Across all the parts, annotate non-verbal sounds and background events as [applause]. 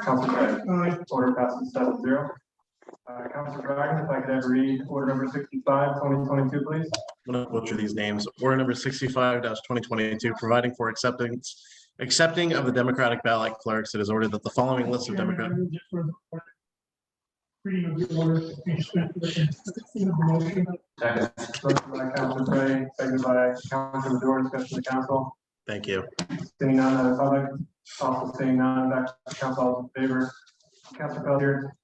Council Craig. uh, Aye. Order passes seven zero. Uh, Council Dragon, if I could have read order number 65, 2022, please. I'm gonna butcher these names. Order number sixty-five twenty twenty-two, providing for acceptance, accepting of the Democratic ballot clerks. It is ordered that the following list of Democratic. Reading of the order to be spent with the consent of the motion. Second. Motion by Council Craig, second by Council Madore, discussion of the council. Thank you. Seeing none, that is public. Also seeing none, back to the council, all in favor. Council Pelletier,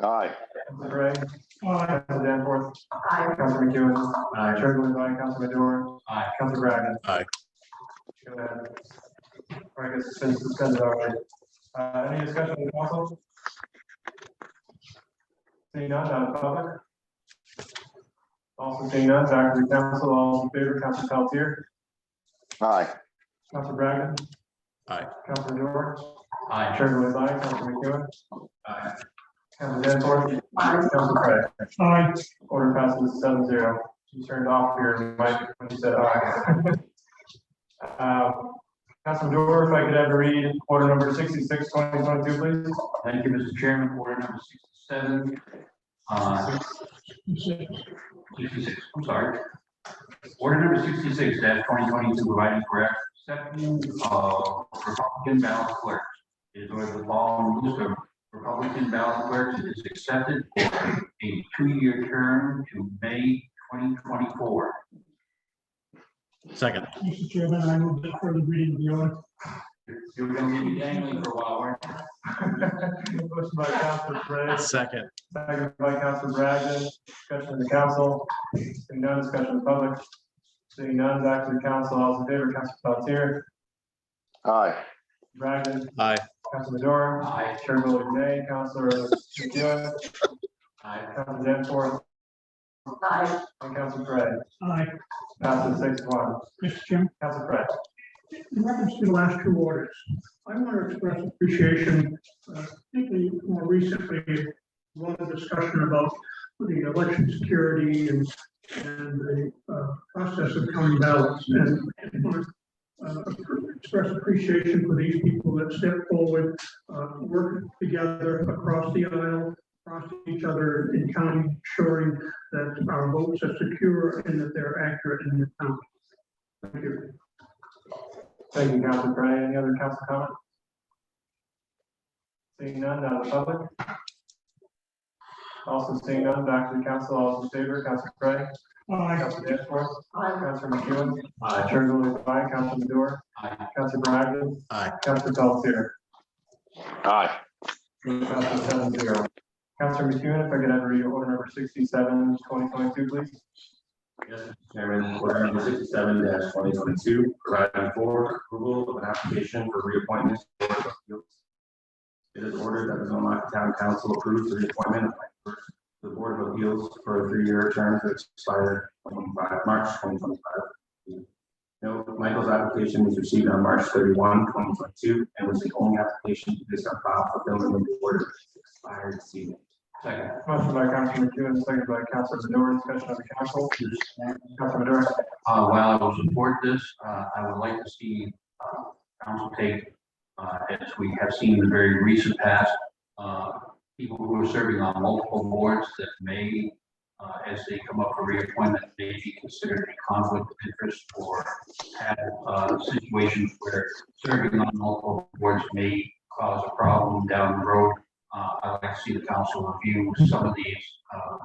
Aye, Council Craig, Aye. Council Danforth. Aye. Council McEwen. Aye. Chair votes aye, Council Madore. Aye. Council Dragon. Aye. Go ahead. All right, I guess it's been suspended already. Uh, any discussion in council? Seeing none, out of public. Also seeing none, back to the council, all in favor, Council Pelletier, aye, Council Dragon. Aye. Council Madore. Aye. Chair votes aye, Council McEwen. Aye. Council Danforth. Aye. Council Craig. Aye. Order passes seven zero. You turned off your mic when you said aye. [laughs] Uh, Councilman Dorr, if I could have a read order number 66, 2022, please. [laughs] Thank you, Mr. Chairman. Order number sixty-seven. uh, Sixty-six, I'm sorry. Order number sixty-six twenty twenty-two, providing for accepting of Republican ballot clerks. It is ordered the following list of Republican ballot clerks is accepted for a two-year term to May twenty twenty-four. Second, Mr. Chairman, I move that for the reading of the order. You were gonna be dangling for a while, weren't you? Motion by Councilman Perez, second, second by Councilman Bragdon, discussion of the council, seeing none, discussion of the public. Seeing none, back to the council, all in favor, Council Pelletier, aye, Bragdon, aye, Councilman Dorr, Aye. Chair voting nay, Councilor McEwen, Aye. Councilman Danforth, Aye. and Council Perez. Aye. Passes six one. Mr. Chairman, Council Pratt. in reference to the last two orders, I want to express appreciation, uh, particularly more recently, a lot of discussion about the election security and, and the uh, process of counting ballots. And I want to uh, express appreciation for these people that step forward, uh, work together across the aisle, across each other in counting, ensuring that our votes are secure and that they're accurate in the count. Thank you. Thank you, Council Pratt. Any other council comment? Seeing none, out of the public. Also seeing none, back to the council, all in favor, Council Pratt. Aye. Council Danforth. Aye. Council McEwen. Aye. Chair voting aye, Council Madore. Aye. Council Bragg. Aye. Council Pelletier. aye, Passes seven zero. Council McEwen, if I could have read order number 67, 2022, please. Yes, Mr. Chairman, order number sixty-seven twenty twenty-two, providing for approval of an application for reappointment. to the Board of Appeals. It is ordered that the Belmont Town Council approves the reappointment of Mike Burke to the Board of Appeals for a three-year term to expire 25 March twenty twenty-five. Note, Michael's application was received on March 31, 2022, and was the only application to this file for building the board expired this evening. Second. Motion by Council McEwen, second by Council Madore, discussion of the council. Council Madore. Uh, while I will support this, uh, I would like to see, uh, council take, uh, as we have seen in the very recent past, uh, people who are serving on multiple boards that may, uh, as they come up for reappointment, may be considered a conflict of interest or have, uh, situations where serving on multiple boards may cause a problem down the road. Uh, I'd like to see the council review some of these, uh,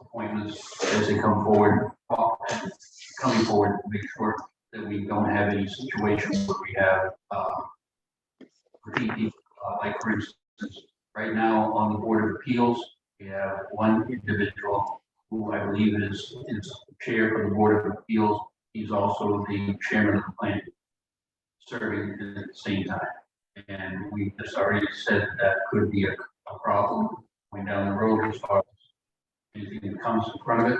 appointments as they come forward, uh, coming forward to make sure that we don't have any situations where we have, uh, repeat people. Uh, like for instance, right now on the Board of Appeals, we have one individual who I believe is, is chair for the Board of Appeals. He's also the chairman of the plan, serving at the same time. And we just already said that could be a, a problem going down the road as far as anything that comes in front of it.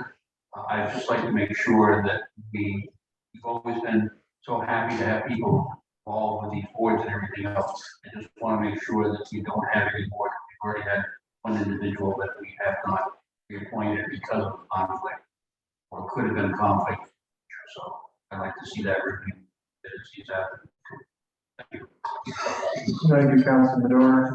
Uh, I'd just like to make sure that we, we've always been so happy to have people involved with these boards and everything else. I just want to make sure that we don't have any board, we've already had one individual that we have not reappointed because of conflict or could have been conflict. So I'd like to see that review. that is- is that- Thank you. Thank you, Councilman Dorr.